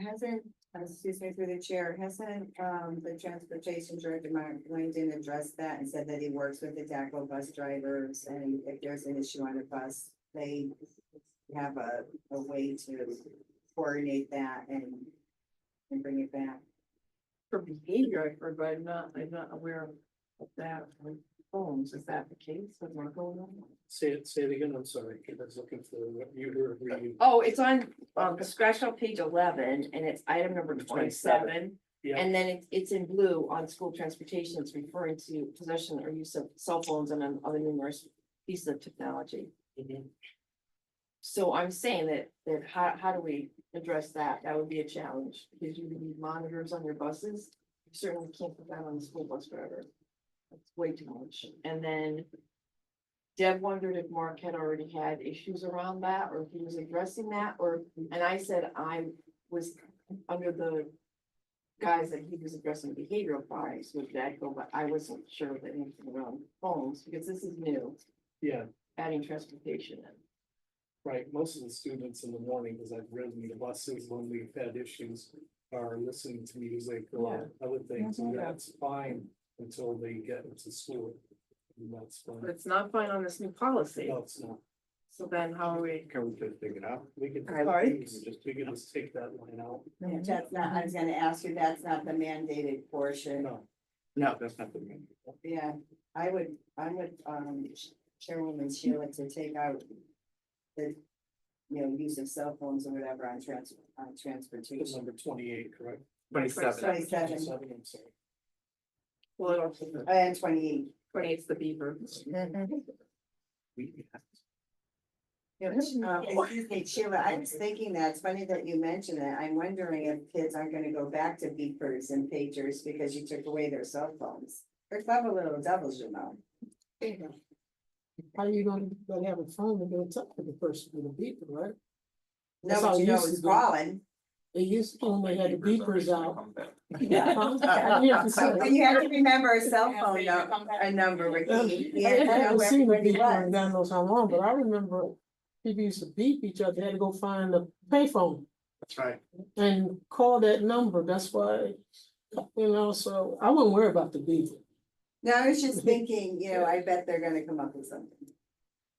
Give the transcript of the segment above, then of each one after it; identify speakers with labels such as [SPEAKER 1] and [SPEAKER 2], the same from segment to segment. [SPEAKER 1] Hasn't, uh, excuse me through the chair, hasn't, um, the transportation director, Mark Langdon addressed that and said that he works with the DACO bus drivers and if there's an issue on a bus, they have a, a way to coordinate that and, and bring it back.
[SPEAKER 2] For behavior, I've heard, but I'm not, I'm not aware of that on phones. Is that the case? What's going on?
[SPEAKER 3] Say it, say it again, I'm sorry, I was looking for what you were reading.
[SPEAKER 2] Oh, it's on, um, the scratch on page eleven and it's item number twenty-seven.
[SPEAKER 3] Yeah.
[SPEAKER 2] And then it's, it's in blue on school transportation. It's referring to possession or use of cell phones and um, other numerous pieces of technology.
[SPEAKER 3] Mhm.
[SPEAKER 2] So I'm saying that, that how, how do we address that? That would be a challenge, because you would need monitors on your buses. You Certainly can't put that on the school bus driver. That's way too much. And then Deb wondered if Mark had already had issues around that, or if he was addressing that, or, and I said I was under the guise that he was addressing behavioral bias with Jacko, but I wasn't sure of anything around phones, because this is new,
[SPEAKER 3] Yeah,
[SPEAKER 2] adding transportation in.
[SPEAKER 3] right, most of the students in the morning, because I've ridden the buses when we've had issues, are listening to music or other things, and
[SPEAKER 2] Mhm.
[SPEAKER 3] that's fine until they get into school. And that's
[SPEAKER 2] But
[SPEAKER 3] fine,
[SPEAKER 2] it's not fine on this new policy,
[SPEAKER 3] no, it's not.
[SPEAKER 2] so then how are we?
[SPEAKER 3] Can we just dig it out? We can,
[SPEAKER 2] Sorry?
[SPEAKER 3] we can just, we can just take that line out.
[SPEAKER 1] That's not, I was gonna ask you, that's not the mandated portion.
[SPEAKER 3] No. No, that's not the main.
[SPEAKER 1] Yeah, I would, I would, um, Chairwoman Sheila to take out the, you know, use of cell phones or whatever on trans, on
[SPEAKER 3] It's
[SPEAKER 1] transportation.
[SPEAKER 3] number twenty-eight, correct?
[SPEAKER 2] Twenty-seven.
[SPEAKER 1] Twenty-seven,
[SPEAKER 3] Twenty-seven, I'm sorry.
[SPEAKER 2] Well, it also,
[SPEAKER 1] Uh, and twenty-eight.
[SPEAKER 2] twenty-eight's the beaver.
[SPEAKER 3] We-
[SPEAKER 1] Yeah, um,
[SPEAKER 4] Mm-hmm.
[SPEAKER 1] excuse me, Sheila, I was thinking that, it's funny that you mentioned that, I'm wondering if kids aren't gonna go back to beepers and pagers because you took away their cell phones. They're clever little devils, you know.
[SPEAKER 4] How you gonna, gonna have a phone and gonna talk to the person with a beeper, right?
[SPEAKER 1] No,
[SPEAKER 4] That's how
[SPEAKER 1] but you know,
[SPEAKER 4] it used
[SPEAKER 1] it's
[SPEAKER 4] to be.
[SPEAKER 1] calling.
[SPEAKER 4] They used to
[SPEAKER 3] Oh
[SPEAKER 4] only had the beepers out.
[SPEAKER 1] But
[SPEAKER 4] Huh?
[SPEAKER 1] you have to remember a cell phone, no- a number, Ricky.
[SPEAKER 4] I
[SPEAKER 1] You have to know
[SPEAKER 4] haven't
[SPEAKER 1] where
[SPEAKER 4] seen a
[SPEAKER 1] everybody
[SPEAKER 4] beeper in
[SPEAKER 1] was.
[SPEAKER 4] God knows how long, but I remember people used to beep each other, they had to go find a payphone
[SPEAKER 3] That's right.
[SPEAKER 4] and call that number, that's why, you know, so I wouldn't worry about the beeper.
[SPEAKER 1] No, I was just thinking, you know, I bet they're gonna come up with something.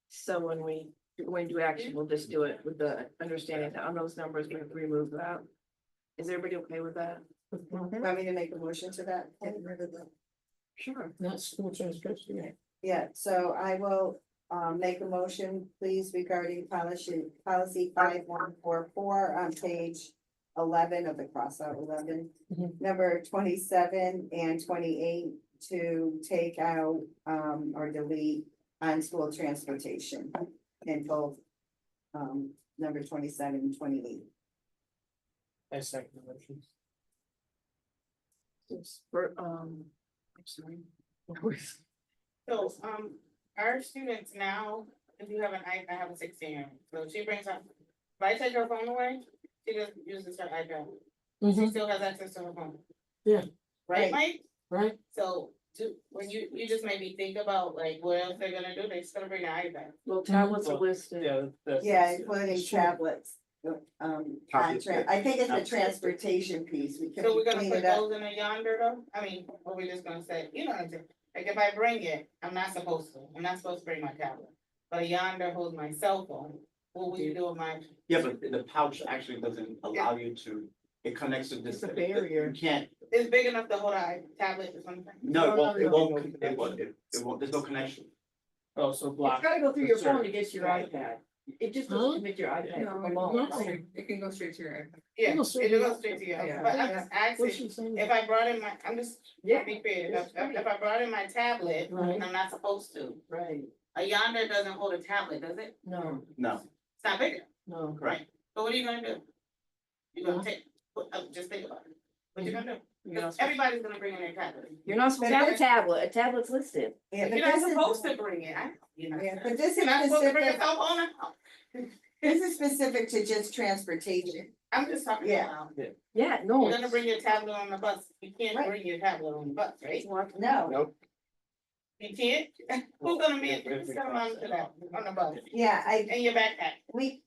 [SPEAKER 2] So when we, when we do action, we'll just do it with the understanding that on those numbers, we have to remove that. Is everybody okay with that?
[SPEAKER 1] Want me to make a motion to that?
[SPEAKER 2] Sure.
[SPEAKER 4] Not school transportation.
[SPEAKER 1] Yeah, so I will um make a motion, please, regarding policy, policy five one four four on page. Eleven of the crossout eleven,
[SPEAKER 4] Mhm.
[SPEAKER 1] number twenty-seven and twenty-eight to take out um or delete on school transportation. And both um number twenty-seven and twenty-eight.
[SPEAKER 3] I second the motion.
[SPEAKER 2] For, um, I'm sorry.
[SPEAKER 5] So, um, our students now, if you have an iPad, I have a sixteen, year old so she brings up, if I take her phone away, she just uses her iPad, she
[SPEAKER 4] Mhm,
[SPEAKER 5] still has access to her phone.
[SPEAKER 4] Yeah.
[SPEAKER 5] Right, Mike?
[SPEAKER 4] right?
[SPEAKER 5] So, to, when you, you just made me think about like, what else they're gonna do, they still bring an iPad.
[SPEAKER 2] Well, tablets are listed.
[SPEAKER 3] Yeah. that's-
[SPEAKER 1] Yeah, including tablets. Um,
[SPEAKER 3] Copy
[SPEAKER 1] on
[SPEAKER 3] of
[SPEAKER 1] tra-
[SPEAKER 3] it.
[SPEAKER 1] I think it's the transportation piece, we could
[SPEAKER 5] So we're gonna
[SPEAKER 1] clean
[SPEAKER 5] put
[SPEAKER 1] it up.
[SPEAKER 5] those in a yonder though, I mean, or we just gonna say, you know, what I'm saying? like, if I bring it, I'm not supposed to, I'm not supposed to bring my tablet. But a yonder holds my cell phone, what will you do with my
[SPEAKER 6] Yeah, but the pouch actually doesn't allow you to, it connects to
[SPEAKER 2] It's
[SPEAKER 6] this.
[SPEAKER 2] a barrier.
[SPEAKER 6] You can't,
[SPEAKER 5] It's big enough to hold a tablet or something.
[SPEAKER 6] no,
[SPEAKER 3] No,
[SPEAKER 6] it won't,
[SPEAKER 3] no,
[SPEAKER 6] it
[SPEAKER 3] no, no
[SPEAKER 6] won't, it won't, it it won't, there's no connection.
[SPEAKER 3] Oh, so
[SPEAKER 2] It's
[SPEAKER 3] block.
[SPEAKER 2] gotta go through your phone to get to your iPad. It just
[SPEAKER 4] Huh?
[SPEAKER 2] doesn't commit your iPad alone.
[SPEAKER 4] No.
[SPEAKER 7] It can go straight to your.
[SPEAKER 5] Yeah, it
[SPEAKER 4] It'll
[SPEAKER 5] goes
[SPEAKER 4] straight to-
[SPEAKER 5] straight to you,
[SPEAKER 2] Yeah.
[SPEAKER 5] but I'm just
[SPEAKER 4] What
[SPEAKER 5] asking,
[SPEAKER 4] she saying?
[SPEAKER 5] if I brought in my, I'm just,
[SPEAKER 2] Yeah,
[SPEAKER 5] be clear, if,
[SPEAKER 2] it's
[SPEAKER 5] I- if I brought in my tablet,
[SPEAKER 4] Right.
[SPEAKER 5] I'm not supposed to.
[SPEAKER 2] right.
[SPEAKER 5] A yonder doesn't hold a tablet, does it?
[SPEAKER 2] No,
[SPEAKER 6] No,
[SPEAKER 5] It's not big, enough.
[SPEAKER 2] no.
[SPEAKER 6] correct.
[SPEAKER 5] but what are you gonna do? You're gonna
[SPEAKER 4] Huh?
[SPEAKER 5] take, put- uh, just think about it, what you gonna do?
[SPEAKER 2] You're
[SPEAKER 5] 'Cause
[SPEAKER 2] not supposed-
[SPEAKER 5] Everybody's gonna bring in their tablet,
[SPEAKER 2] you're not supposed to have a tablet. A tablet's listed.
[SPEAKER 1] Yeah, but
[SPEAKER 5] you're not
[SPEAKER 1] this is-
[SPEAKER 5] supposed to bring it, I, you know.
[SPEAKER 1] Yeah, but this is
[SPEAKER 5] You're not supposed to bring your
[SPEAKER 1] specific,
[SPEAKER 5] cell phone, out.
[SPEAKER 1] this is specific to just transportation.
[SPEAKER 5] I'm just talking
[SPEAKER 1] Yeah.
[SPEAKER 5] about, um,
[SPEAKER 2] Yeah, no.
[SPEAKER 5] you're gonna bring your tablet on the bus, you can't
[SPEAKER 1] Right.
[SPEAKER 5] bring your tablet on the bus, right?
[SPEAKER 1] No,
[SPEAKER 5] You can't, who's gonna be,
[SPEAKER 3] Yeah,
[SPEAKER 5] who's gonna monitor that on the bus?
[SPEAKER 1] yeah, I,
[SPEAKER 5] In your backpack.
[SPEAKER 1] we,